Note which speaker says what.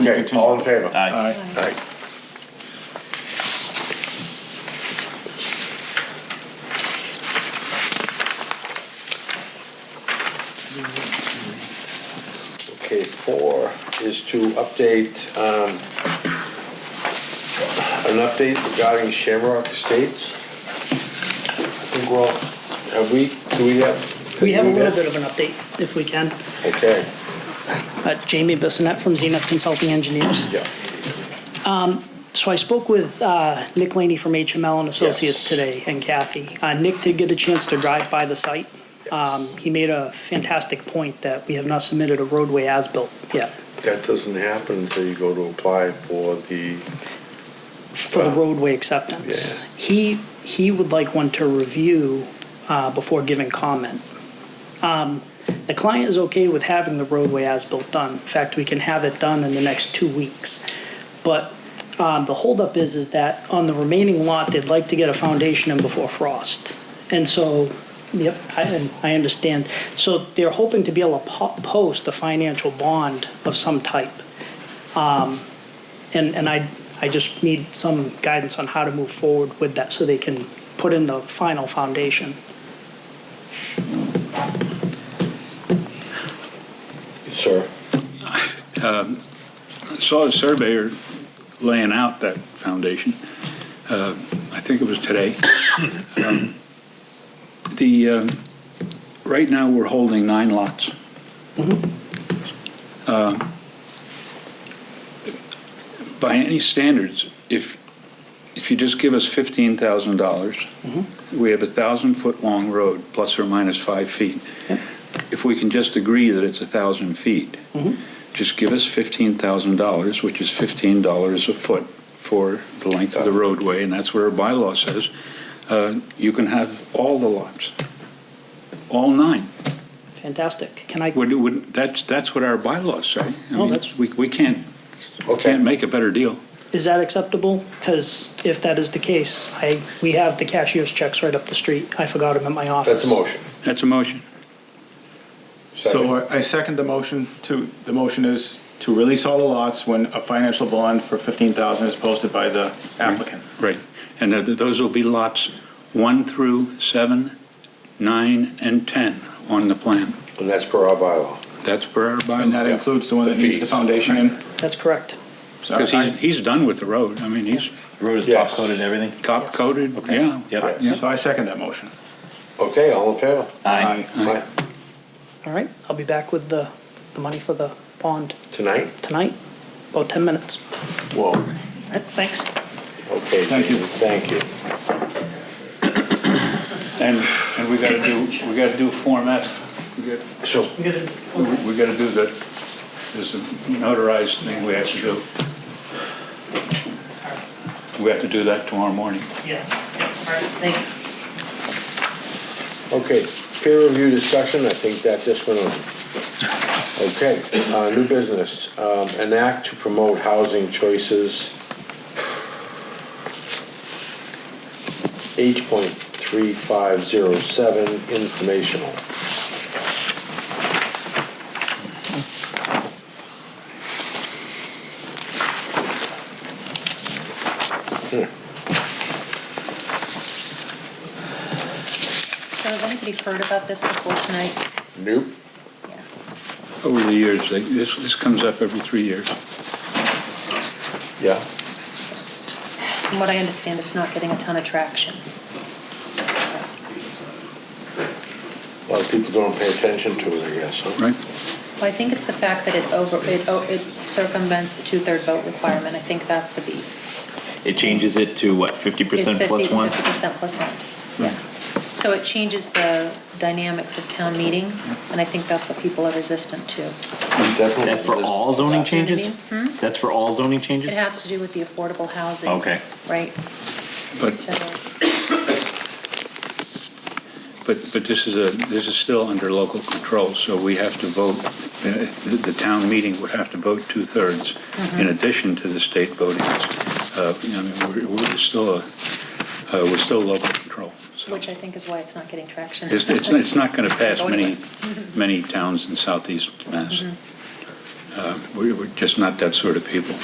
Speaker 1: Okay,
Speaker 2: continue.
Speaker 1: all in favor?
Speaker 3: Aye.
Speaker 2: Aye.
Speaker 1: Aye. Okay, four is to update, um, an update regarding Shamrock Estates. I think we're all, have we, do we have?
Speaker 4: We have a little bit of an update, if we can.
Speaker 1: Okay,
Speaker 4: Uh, Jamie Bissonette from Zenith Consulting Engineers.
Speaker 1: yeah,
Speaker 4: So I spoke with uh, Nick Laney from HML and Associates today, and Kathy. Uh, Nick did get a chance to drive by the site. Um, He made a fantastic point that we have not submitted a roadway as-built yet
Speaker 1: that doesn't happen until you go to apply for the,
Speaker 4: for the roadway acceptance. He, he would like one to review uh, before giving comment. Um, The client is okay with having the roadway as-built done. In fact, we can have it done in the next two weeks. But um, the holdup is, is that on the remaining lot, they'd like to get a foundation in before frost. And so, yep, I, and I understand. So they're hoping to be able to po- post a financial bond of some type. Um, And, and I, I just need some guidance on how to move forward with that so they can put in the final foundation.
Speaker 1: sir,
Speaker 3: Saw a surveyor laying out that foundation. uh, I think it was today. Um, The, uh, right now, we're holding nine lots. Uh, By any standards, if, if you just give us $15,000, we have a 1,000-foot-long road, plus or minus five feet. If we can just agree that it's a 1,000 feet, just give us $15,000, which is $15 a foot for the length of the roadway, and that's where our bylaw says, uh, you can have all the lots, all nine.
Speaker 4: Fantastic. Can I?
Speaker 3: Would- would- That's, that's what our bylaws say. I
Speaker 4: No,
Speaker 3: mean,
Speaker 4: that's-
Speaker 3: We we can't,
Speaker 1: okay.
Speaker 3: can't make a better deal.
Speaker 4: Is that acceptable? Because if that is the case, I, we have the cashier's checks right up the street. I forgot them at my office.
Speaker 1: That's a motion.
Speaker 3: That's a motion.
Speaker 2: So
Speaker 1: Second.
Speaker 2: I I second the motion to, the motion is to release all the lots when a financial bond for 15,000 is posted by the
Speaker 3: Mm-hmm.
Speaker 2: applicant.
Speaker 3: Right. And th- those will be lots 1 through 7, 9, and 10 on the plan.
Speaker 1: And that's per our bylaw.
Speaker 3: That's per our
Speaker 2: And that
Speaker 3: bylaw.
Speaker 2: includes the one that
Speaker 1: The
Speaker 2: needs the
Speaker 1: fees.
Speaker 2: foundation in.
Speaker 4: That's correct.
Speaker 2: So
Speaker 3: Because
Speaker 2: I-
Speaker 3: he's, he's done with the road. I mean, he's
Speaker 5: Road is top
Speaker 1: Yes.
Speaker 5: coated and everything?
Speaker 3: top coated, yeah.
Speaker 5: Yep.
Speaker 2: So I second that motion.
Speaker 1: Okay, all in favor?
Speaker 5: Aye.
Speaker 1: Aye.
Speaker 4: All right, I'll be back with the, the money for the bond
Speaker 1: Tonight?
Speaker 4: tonight, about 10 minutes.
Speaker 1: Whoa.
Speaker 4: All right, thanks.
Speaker 1: Okay.
Speaker 2: Thank you.
Speaker 1: Jesus, Thank you.
Speaker 3: And, and we gotta do, we gotta do Form F. We got-
Speaker 1: So,
Speaker 3: we- We gotta do the, there's a notarized thing we have to do. We have to do that tomorrow morning.
Speaker 4: Yeah, all right, thanks.
Speaker 1: okay, peer review discussion, I think that just went on. Okay, uh, new business, um, an act to promote housing choices. H point three five zero seven, informational.
Speaker 6: So has anybody heard about this before tonight?
Speaker 1: Nope.
Speaker 6: Yeah.
Speaker 3: Over the years, they- this, this comes up every three years.
Speaker 1: Yeah.
Speaker 6: From what I understand, it's not getting a ton of traction.
Speaker 1: A lot of people don't pay attention to it, I guess, huh?
Speaker 3: Right?
Speaker 6: Well, I think it's the fact that it over, it oh, it circumvents the two-third vote requirement. I think that's the beef.
Speaker 5: It changes it to what, fifty percent plus one? Hmm.
Speaker 6: It's 50, percent plus one. Yeah. So it changes the dynamics of town meeting, and I think that's what people are resistant to.
Speaker 1: Definitely.
Speaker 5: That for all zoning changes?
Speaker 6: Opportunity,
Speaker 5: That's for all zoning changes?
Speaker 6: Hmm? It has to do with the affordable housing.
Speaker 5: Okay.
Speaker 6: Right? So,
Speaker 3: But, but, but this is a, this is still under local control, so we have to vote, uh, the the town meeting would have to vote two-thirds in addition to the state voting. Uh, you know, I mean, we're, we're still, a- uh, we're still local control. so.
Speaker 6: which I think is why it's not getting traction.
Speaker 3: It's, it's, it's not gonna pass many, many towns in southeast Mass. Uh, We're we're just not that sort of people.